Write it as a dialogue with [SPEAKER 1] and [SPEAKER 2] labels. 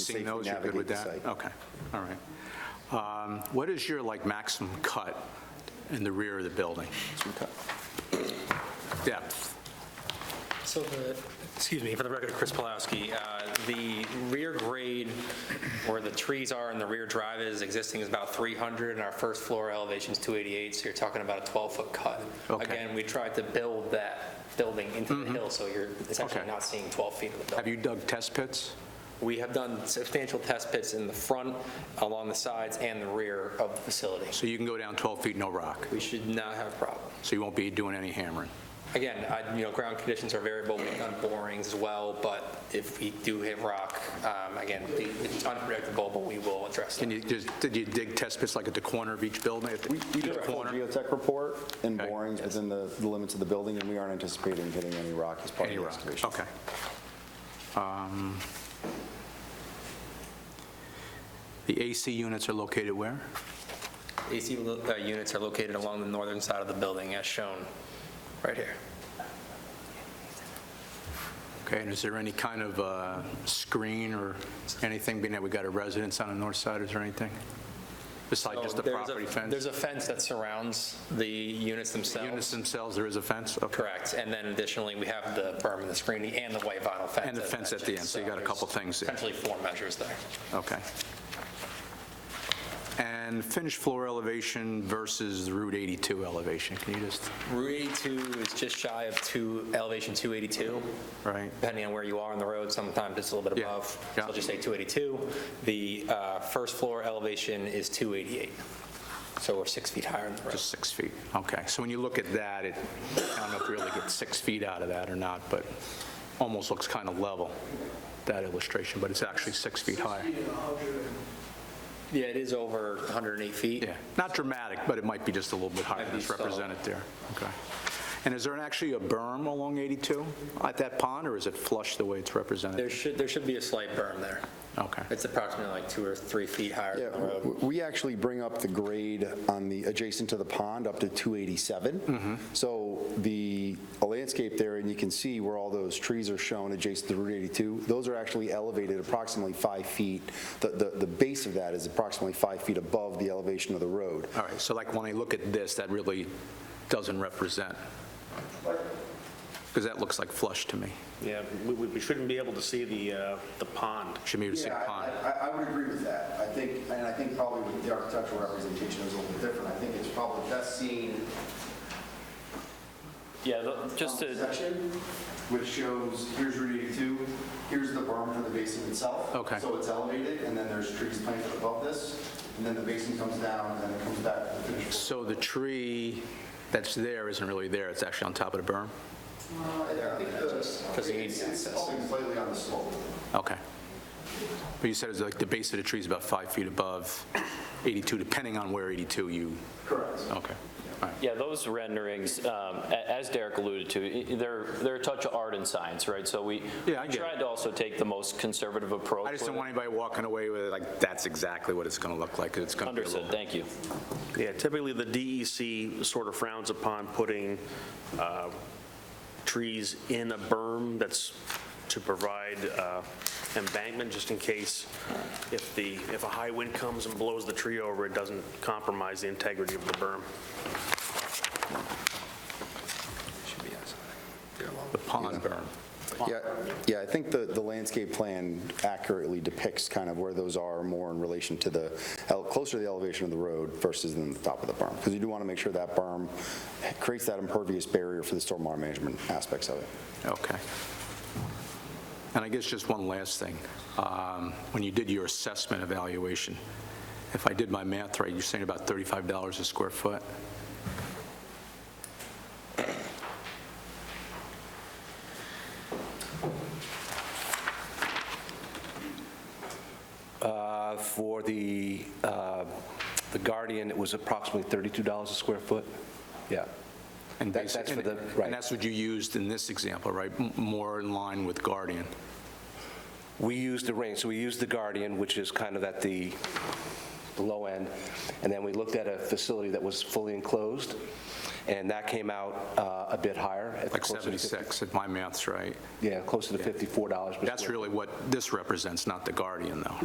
[SPEAKER 1] Seeing
[SPEAKER 2] safely
[SPEAKER 1] those, you're good
[SPEAKER 2] navigate
[SPEAKER 1] with
[SPEAKER 2] the
[SPEAKER 1] that?
[SPEAKER 2] site.
[SPEAKER 1] Okay, all right. Um, What is your, like, maximum cut in the rear of the building? Depth?
[SPEAKER 3] So the, excuse me, for the record, Chris Polowski, uh, the rear grade where the trees are and the rear drive is existing is about 300, and our first floor elevation is 288, so you're talking about a 12-foot cut.
[SPEAKER 1] Okay. Mm-hmm.
[SPEAKER 3] Again, we tried to build that building into the hill, so you're essentially
[SPEAKER 1] Okay.
[SPEAKER 3] not seeing 12 feet of the
[SPEAKER 1] Have
[SPEAKER 3] building.
[SPEAKER 1] you dug test pits?
[SPEAKER 3] We have done substantial test pits in the front, along the sides, and the rear of the facility.
[SPEAKER 1] So you can go down 12 feet, no rock,
[SPEAKER 3] We should not have a problem.
[SPEAKER 1] so you won't be doing any hammering?
[SPEAKER 3] Again, I, you know, ground conditions are variable, we've done borings as well, but if we do hit rock, um, again, the- it's unpredictable, but we will address
[SPEAKER 1] Can
[SPEAKER 3] it.
[SPEAKER 1] you, just- did you dig test pits like at the corner of each building? at the-
[SPEAKER 2] We we
[SPEAKER 1] each
[SPEAKER 2] did a full
[SPEAKER 1] corner?
[SPEAKER 2] geotech report and
[SPEAKER 1] Okay.
[SPEAKER 2] borings within the the limits of the building, and we aren't anticipating hitting any rock as part of
[SPEAKER 1] Any
[SPEAKER 2] the
[SPEAKER 1] rock,
[SPEAKER 2] excavation.
[SPEAKER 1] okay. Um, The AC units are located where?
[SPEAKER 3] AC lo- uh, units are located along the northern side of the building, as shown right here.
[SPEAKER 1] Okay, and is there any kind of uh, screen or anything, being that we got a residence on the north side, is there anything? Besides just
[SPEAKER 3] So
[SPEAKER 1] the
[SPEAKER 3] there's a-
[SPEAKER 1] property fence?
[SPEAKER 3] There's a fence that surrounds the units
[SPEAKER 1] Units
[SPEAKER 3] themselves.
[SPEAKER 1] themselves, there is a fence? Okay.
[SPEAKER 3] Correct, and then additionally, we have the berm and the screening and the white vinyl fence.
[SPEAKER 1] And the
[SPEAKER 3] as
[SPEAKER 1] fence at the
[SPEAKER 3] mentioned.
[SPEAKER 1] end, so you got a
[SPEAKER 3] there's
[SPEAKER 1] couple things there.
[SPEAKER 3] Essentially four measures there.
[SPEAKER 1] Okay. And finished floor elevation versus Route 82 elevation, can you just,
[SPEAKER 3] Route 82 is just shy of two, elevation 282.
[SPEAKER 1] right?
[SPEAKER 3] depending on where you are on the road, sometimes it's a little bit
[SPEAKER 1] Yeah,
[SPEAKER 3] above. So
[SPEAKER 1] yeah.
[SPEAKER 3] I'll just say 282. The uh, first floor elevation is 288. So we're six feet higher on the road.
[SPEAKER 1] Just six feet, okay. So when you look at that, it, I don't know if you really get six feet out of that or not, but almost looks kind of level, that illustration, but it's actually six feet higher.
[SPEAKER 3] Yeah, it is over 108 feet.
[SPEAKER 1] Yeah, not dramatic, but it might be just a little bit higher
[SPEAKER 3] Might
[SPEAKER 1] than
[SPEAKER 3] be
[SPEAKER 1] it's
[SPEAKER 3] subtle.
[SPEAKER 1] represented there. Okay. And is there actually a berm along 82 at that pond, or is it flush the way it's
[SPEAKER 3] There
[SPEAKER 1] represented?
[SPEAKER 3] should, there should be a slight berm there.
[SPEAKER 1] Okay,
[SPEAKER 3] It's approximately like two or three feet higher
[SPEAKER 2] Yeah,
[SPEAKER 3] than the road.
[SPEAKER 2] w- we actually bring up the grade on the, adjacent to the pond, up to
[SPEAKER 1] Mm-hmm.
[SPEAKER 2] 287. So the landscape there, and you can see where all those trees are shown adjacent to Route 82, those are actually elevated approximately five feet. The, the, the base of that is approximately five feet above the elevation of the road.
[SPEAKER 1] all right, so like when I look at this, that really doesn't represent, because that looks like flush to me.
[SPEAKER 4] Yeah, we- we we shouldn't be able to see the uh, the pond.
[SPEAKER 1] Should be able to see a pond.
[SPEAKER 2] I, I would agree with that. I think, and I think probably with the architectural representation is a little bit different. I think it's probably best seen
[SPEAKER 5] Yeah, the- just to,
[SPEAKER 2] section, which shows, here's Route 82, here's the berm for the basin itself.
[SPEAKER 1] Okay.
[SPEAKER 2] So it's elevated, and then there's trees planted above this, and then the basin comes down, and then it comes back to the finished
[SPEAKER 1] So
[SPEAKER 2] floor.
[SPEAKER 1] the tree that's there isn't really there, it's actually on top of the berm?
[SPEAKER 2] Uh,
[SPEAKER 3] Because you need access.
[SPEAKER 2] It's slightly on the slope.
[SPEAKER 1] Okay. But you said it's like the base of the tree is about five feet above 82, depending on where 82 you,
[SPEAKER 2] Correct.
[SPEAKER 1] okay, all right.
[SPEAKER 5] yeah, those renderings, um, a- as Derek alluded to, i- they're, they're a touch of art and science, right? So we
[SPEAKER 1] Yeah, I get it.
[SPEAKER 5] tried to also take the most conservative approach.
[SPEAKER 1] I just don't
[SPEAKER 5] with
[SPEAKER 1] want anybody walking away with, like, that's exactly what it's going to look like, 'cause it's
[SPEAKER 5] it.
[SPEAKER 1] going to be a
[SPEAKER 5] Understood,
[SPEAKER 1] little...
[SPEAKER 5] thank you.
[SPEAKER 4] Yeah, typically the DEC sort of frowns upon putting uh, trees in a berm that's to provide uh, embankment, just in case if the, if a high wind comes and blows the tree over, it doesn't compromise the integrity of the berm.
[SPEAKER 1] The pond berm.
[SPEAKER 2] Yeah, yeah, I think the, the landscape plan accurately depicts kind of where those are more in relation to the, ele- closer to the elevation of the road versus than the top of the berm. Because you do want to make sure that berm creates that impervious barrier for the stormwater management aspects of it.
[SPEAKER 1] Okay. And I guess just one last thing. Um, When you did your assessment evaluation, if I did my math right, you're saying about $35 a square foot?
[SPEAKER 6] Uh, For the, uh, the Guardian, it was approximately $32 a square foot. Yeah.
[SPEAKER 1] And
[SPEAKER 6] That-
[SPEAKER 1] basi-
[SPEAKER 6] that's for
[SPEAKER 1] and-
[SPEAKER 6] the- right.
[SPEAKER 1] And that's what you used in this example, right? M- More in line with Guardian?
[SPEAKER 6] We used the range, so we used the Guardian, which is kind of at the the low end, and then we looked at a facility that was fully enclosed, and that came out uh, a bit higher. at
[SPEAKER 1] like
[SPEAKER 6] closer to 50
[SPEAKER 1] 76, if my math's right.
[SPEAKER 6] Yeah, closer to $54. per
[SPEAKER 1] That's
[SPEAKER 6] square foot.
[SPEAKER 1] really what this represents, not the Guardian, though.